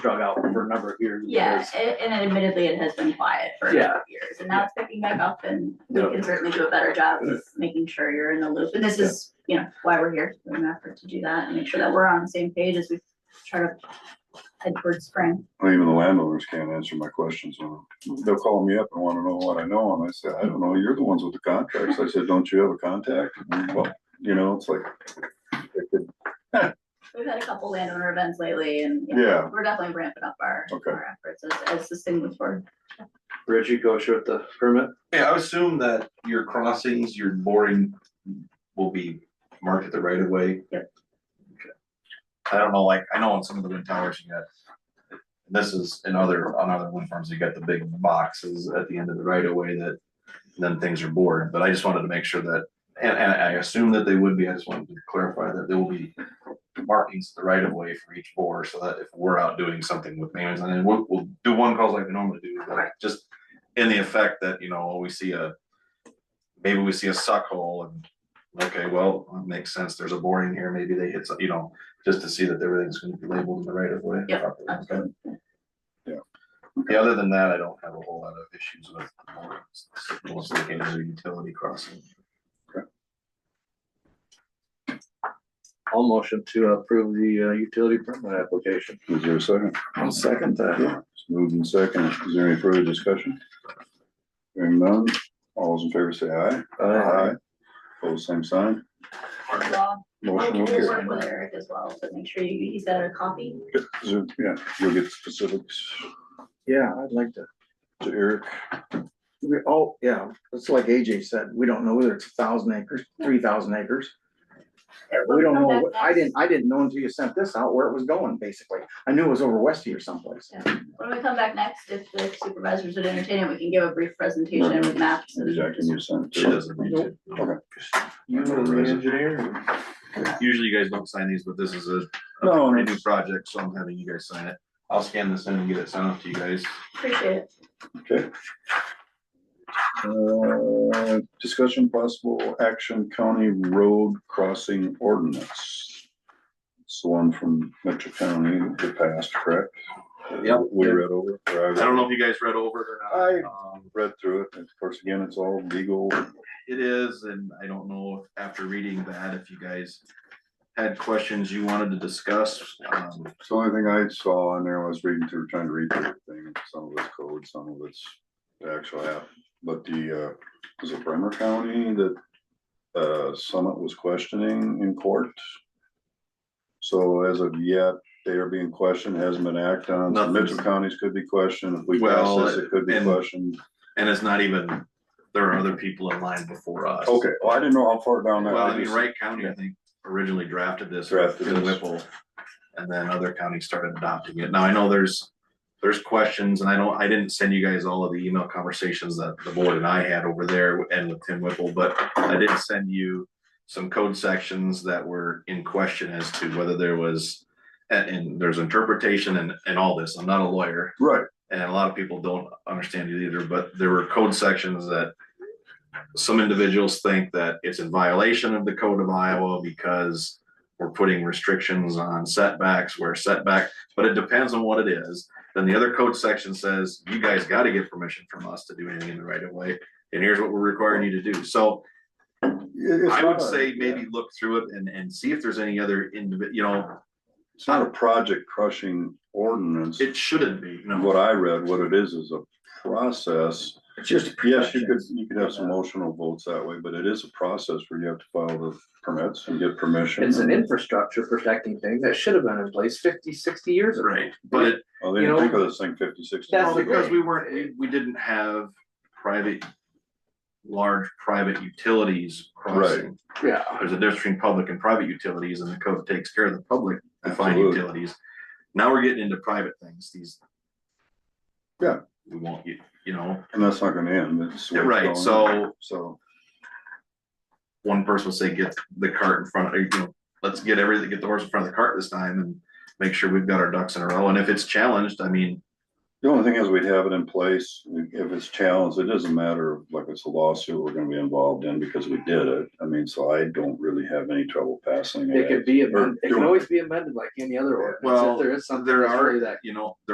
there for a number of years. Yeah, because- a- and admittedly, it has been quiet for a Yeah. number of years, and now it's picking back up, and we Yeah. can certainly do a better job of making sure you're in the loop, and this is, you know, why we're here, we're an effort to do that, and make sure that we're on the same page as we try to head towards spring. Well, Even the landowners can't answer my questions. on them. They'll call me up and wanna know what I know, and I said, I don't know, you're the ones with the contracts. I said, don't you have a contact? And, Well, you know, it's like, it could- We've had a couple landowner events lately, and yeah, yeah, we're definitely ramping up our, Okay. our efforts as, as this thing moves forward. Reggie, go short the permit. Yeah, I would assume that your crossings, your boring will be marked at the right of way. Yep. Okay. I don't know, like, I know on some of the wind towers you got, and this is in other, on other wind farms, you got the big boxes at the end of the right of way that then things are bored, but I just wanted to make sure that, and, and I assume that they would be, I just wanted to clarify that there will be markings at the right of way for each bore, so that if we're out doing something with mains, and then we'll, we'll do one calls like we normally do, but just in the effect that, you know, we see a, maybe we see a suck hole and, okay, well, it makes sense, there's a boring here, maybe they hit some, you know, just to see that everything's gonna be labeled in the right of way. Yep, properly, okay? absolutely. Yeah. Yeah, other than that, I don't have a whole lot of issues with borings, most of the games are utility crossing. I'll motion to approve the uh, utility permit application. is there a second? I'll second that. It's moved in second. Is there any further discussion? Hearing none, all those in favor say aye. Pose same sign. Well, Motion we'll will we'll carry. work with Eric as well, so make sure you, he's got a copy. So, Yeah, you'll get specifics Yeah, I'd like to, to Eric. we, oh, yeah, it's like AJ said, we don't know whether it's a thousand acres, three thousand acres. We don't know, what- I didn't, I didn't know until you sent this out where it was going, basically. I knew it was over west here someplace. When we come back next, if the supervisors would entertain it, we can give a brief presentation with maps and. Jack, can you send? She doesn't need to. You were the engineer? Usually you guys don't sign these, but this is a, No, a pretty new project, so I'm having you guys sign it. I'll scan this in and get it sent off to you guys. Appreciate it. Uh, discussion possible action county road crossing ordinance. It's the one from Metro County that passed, correct? Yep. We read over. or I don't know if you guys read over it or not. Um, Read through it, and of course, again, it's all legal, It is, and I don't know if after reading that, if you guys had questions you wanted to discuss. um, so the only thing I saw on there was reading through, trying to read through the thing, some of it's code, some of it's the actual app. But the, uh, was it Bremer County that, uh, Summit was questioning in court? So as of yet, they are being questioned, hasn't been acted on, So Nothing's- Mitchell counties could be questioned, if we pass Well, this, it could be and- questioned. And it's not even, there are other people in line before us. Okay, well, I didn't know how far down that. Well, I mean, just- Wright County, I think, originally drafted this. Drafted through this. Whipple, and then other counties started adopting it. Now, I know there's, there's questions, and I don't, I didn't send you guys all of the email conversations that the board and I had over there and with Tim Whipple, but I did send you some code sections that were in question as to whether there was, and, and there's interpretation and, and all this. I'm not a lawyer, Right, and a lot of people don't understand it either, but there were code sections that some individuals think that it's in violation of the code of Iowa because we're putting restrictions on setbacks where setback, but it depends on what it is. Then the other code section says, you guys gotta get permission from us to do anything in the right of way, and here's what we're requiring you to do. So It- it's I would not a- say maybe look through it and, and see if there's any other individ, you know, It's not a project crushing ordinance. it shouldn't be, no. what I read, what it is, is a process. It's just. Yes, you could, you could have some emotional votes that way, but it is a process where you have to file the permits and get permission. It's an infrastructure protecting thing that should have been in place 50, 60 years ago. Right, but it, Well, they you didn't know, think of this thing fifty, sixty. that's Well, the because thing. we weren't, we, we didn't have private, large private utilities crossing. Yeah, There's a difference between public and private utilities and the code takes care of the public defined Absolutely. utilities. Now we're getting into private things, these. Yeah. We won't, you, you know, And that's not gonna end, it's. the way it's right, going. so So, one person will say, get the cart in front, of you know, let's get everything, get the horse in front of the cart this time and make sure we've got our ducks in a row. And if it's challenged, I mean, the only thing is we'd have it in place, if it's challenged, it doesn't matter, of, like it's a lawsuit we're gonna be involved in because we did it. I mean, so I don't really have any trouble passing it. it could be Or amended, it doing can always be amended like any other ordinance, Well, if there is something. there that's are- really that you know,